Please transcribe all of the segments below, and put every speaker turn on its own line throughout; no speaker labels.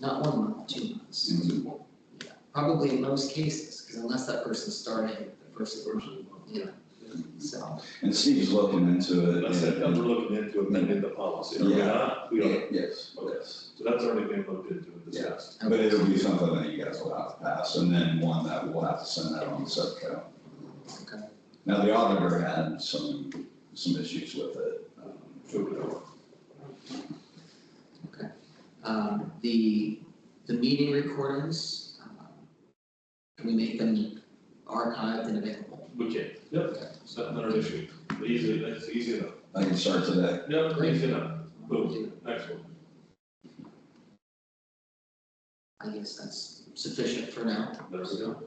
not one month, two months.
Mm-hmm.
Mhm.
Yeah, Probably in most cases, because unless that person's starting the first version, you know, so.
And Steve's looking into it.
That's it,
and-
and we're looking into amending the policy, are we
Yeah.
not? We are,
Yes,
Okay.
yes.
so that's already been looked into and discussed.
But it'll be something that you guys will have to pass, and then one that we'll have to send out on the subco.
Okay.
Now, the auditor had some, some issues with it. um,
So,
Um, the, the meeting recordings, um, can we make them archived and available?
We can, yep, it's not another issue, But easy, that's easy enough,
I can start today.
yep, easy enough, boom,
Do-
next one.
I guess that's sufficient for now.
There we go.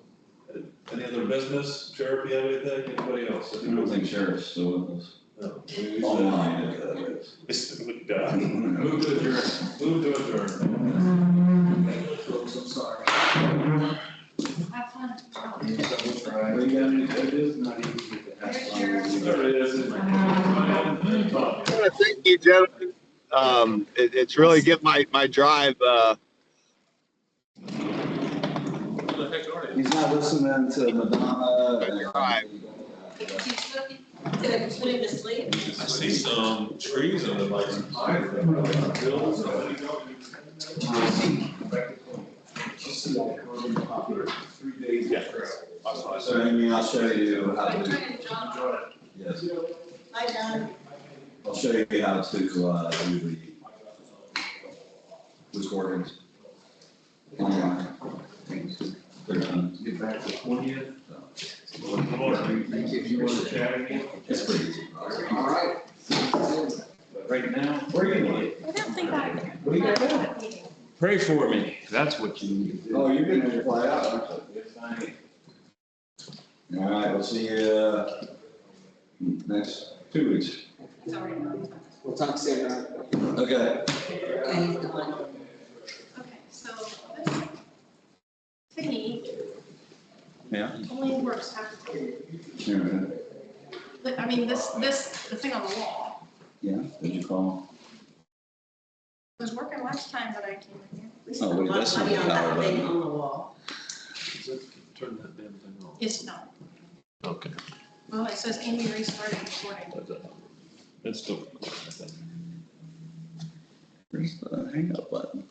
Uh, Any other business, Sheriff, you have anything, anybody else?
I don't think sheriff's still with us.
No. We- we-
Online, if that is.
It's- we- duh. Move to adjourn, move to adjourn.
Folks, I'm sorry.
Have fun.
What you got any judges? Not even.
There's your-
There it is. It's my- Bob.
Yeah, thank you, gentlemen. Um, it, it's really get my, my drive, uh,
Who the heck are you?
He's not listening to Madonna. and-
You're right.
She's looking to put him to sleep.
I see some trees on the like. Bills, somebody go.
So Amy, I'll show you how
Hi,
to,
John.
yes,
Hi, John.
I'll show you how to, uh, do the recordings. Online. They're done.
Get back to twentieth.
Thank you.
You wanna chat again?
It's pretty easy.
All right.
Right now,
Where are you going?
I don't think I.
What do you got now?
pray for me. That's what you need.
Oh, you're gonna just fly out, aren't you? All right, we'll see you, uh, next two weeks.
Sorry.
We'll talk soon.
Okay.
Thank you.
Okay, so this thingy
Yeah.
only works half the time.
Sure.
But, I mean, this, this, the thing on the wall
Yeah, did you call?
was working last time that I came in here.
We
Oh,
spent a
wait,
lot
that's
of
not
money
the
on that
power
thing
button.
on the wall.
Turn that damn thing off.
It's not.
Okay.
Well, it says Amy restarted recording.
That's still.
Where's the hang up button?